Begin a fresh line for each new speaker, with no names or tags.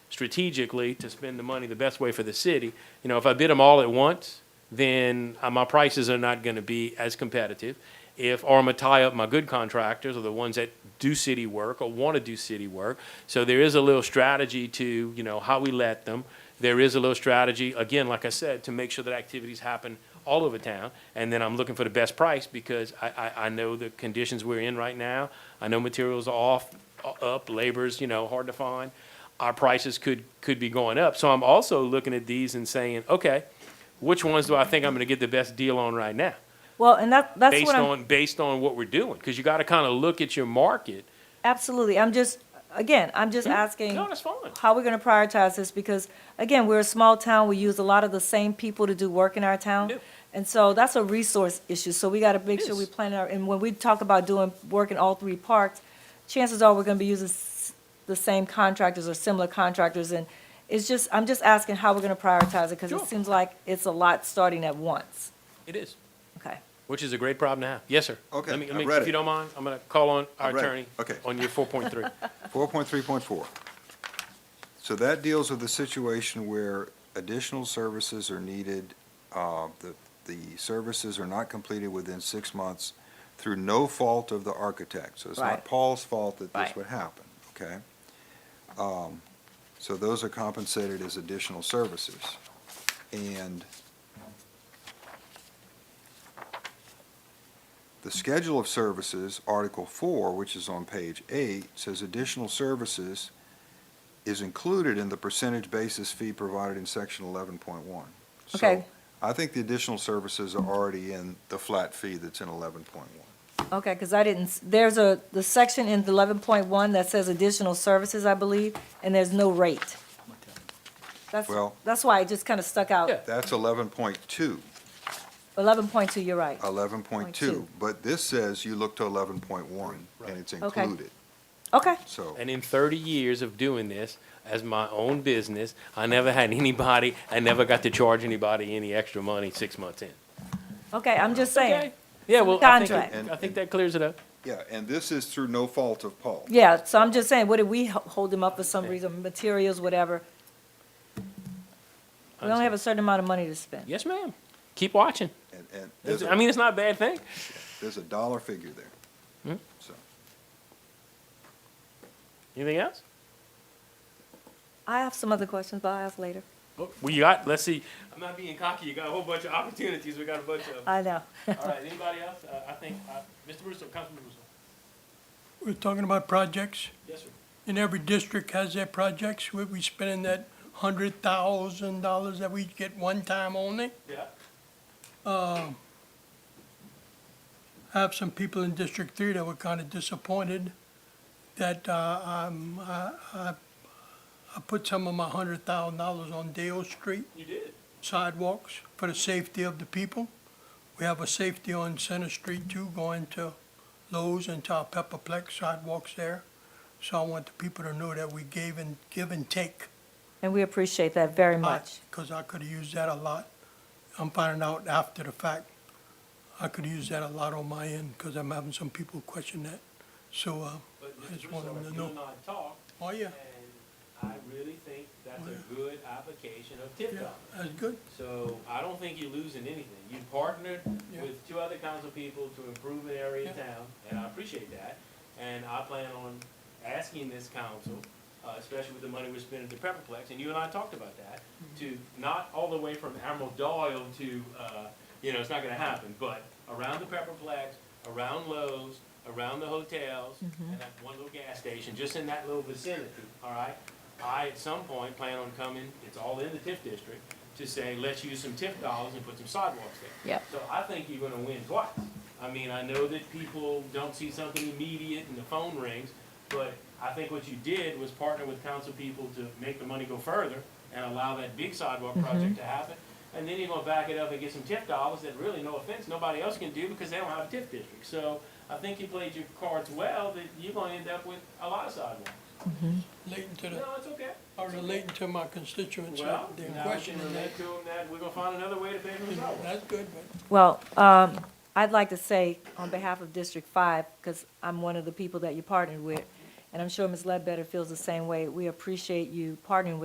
strategically to spend the money the best way for the city. You know, if I bid them all at once, then uh, my prices are not going to be as competitive. If, or I'm going to tie up my good contractors or the ones that do city work or want to do city work. So there is a little strategy to, you know, how we let them. There is a little strategy, again, like I said, to make sure that activities happen all over town. And then I'm looking for the best price because I, I, I know the conditions we're in right now. I know materials are off, uh, up, labor's, you know, hard to find. Our prices could, could be going up. So I'm also looking at these and saying, okay, which ones do I think I'm gonna get the best deal on right now?
Well, and that, that's
Based
what I'm,
on, based on what we're doing, because you gotta kind of look at your market.
absolutely, I'm just, again, I'm just asking
Mm-hmm. No, that's fine.
how we're gonna prioritize this, because, again, we're a small town, we use a lot of the same people to do work in our town.
Yeah.
And so that's a resource issue, so we gotta make sure
Yes.
we plan our, and when we talk about doing work in all three parks, chances are we're gonna be using s- the same contractors or similar contractors, and it's just, I'm just asking how we're gonna prioritize it, because
Sure.
it seems like it's a lot starting at once.
It is,
Okay,
which is a great problem to have. Yes, sir.
Okay,
Let me- let
I've
me-
read
If
it.
you don't mind, I'm gonna call on our
I've read it.
attorney.
Okay.
On your four point three.
4.3.4. So that deals with the situation where additional services are needed, uh, the, the services are not completed within six months through no fault of the architect. So it's
Right.
not Paul's fault that this
Right.
would happen, okay? Um, So those are compensated as additional services. And The schedule of services, Article four, which is on page eight, says additional services is included in the percentage basis fee provided in section eleven point one.
Okay.
I think the additional services are already in the flat fee that's in eleven point one.
Okay, because I didn't, s- there's a, the section in eleven point one that says additional services, I believe, and there's no rate. That's,
Well-
that's why it just kind of stuck out.
Yeah.
That's 11.2. 11.2.
Eleven point two, you're right.
Oh.
two.
but this says you look to eleven point one,
Right.
and it's
Okay.
included,
Okay,
so.
And in 30 years of doing this as my own business, I never had anybody, I never got to charge anybody any extra money six months in.
okay, I'm just
Okay.
saying.
Yeah,
It's in
well,
the
I think,
contract.
it- I think that clears it up.
Yeah, and this is through no fault of Paul.
Yeah, so I'm just saying, what did we ho- hold them up for some reason, materials, whatever? We only have a certain amount of money to spend.
Yes, ma'am. Keep watching.
And, and there's
I
a,
mean, it's not a bad thing.
there's a dollar figure there.
Hmm?
So,
Anything else?
I have some other questions, but I'll ask later.
Oh, We got, let's see. I'm not being cocky. You got a whole bunch of opportunities. We got a bunch of.
I know.
All right, anybody else? Uh, I think, uh, Mr. Russo, Councilman Russo.
We're talking about projects,
Yes, sir.
and every district has their projects, where we spending that hundred thousand dollars that we get one time only.
Yeah.
I have some people in District Three that were kinda disappointed that, uh, um, I, I, I put some of my hundred thousand dollars on Dale Street
You did.
sidewalks for the safety of the people. We have a safety on Center Street too, going to Lowe's and to our Pepperplex sidewalks there. So I want the people to know that we gave and, give and take.
And we appreciate that very much.
Because I could have used that a lot. I'm finding out after the fact. I could use that a lot on my end because I'm having some people question that. So, uh,
But
I just wanted them to know.
I talked,
oh yeah,
uh, And I really think that's a good application of tip
yeah,
top.
that's good.
So I don't think you're losing anything. You partnered
Yeah.
with two other council people to improve an area of
Yeah.
town, and I appreciate that. And I plan on asking this council, uh, especially with the money we're spending at the Pepperplex, and you and I talked about that, to not all the way from Admiral Doyle to, uh, you know, it's not gonna happen, but around the Pepperplex, around Lowe's, around the hotels, and that one little gas station, just in that little vicinity, all right? I, at some point, plan on coming, it's all in the TIF district, to say, let's use some TIF dollars and put some sidewalks there.
Yep.
So I think you're gonna win twice. I mean, I know that people don't see something immediate and the phone rings, but I think what you did was partner with council people to make the money go further and allow that big sidewalk project to happen. And then you're gonna back it up and get some TIF dollars that really, no offense, nobody else can do because they don't have a TIF district. So I think you played your cards well, that you're gonna end up with a lot of sidewalks.
Relating to the,
No, it's okay.
or relating to my constituents,
Well,
their
now we can
questioning that.
relate to them that we're gonna find another way to pay for the sidewalks.
That's good, but.
Well, um, I'd like to say on behalf of District Five, because I'm one of the people that you partnered with, and I'm sure Ms. Ledbetter feels the same way, we appreciate you partnering with.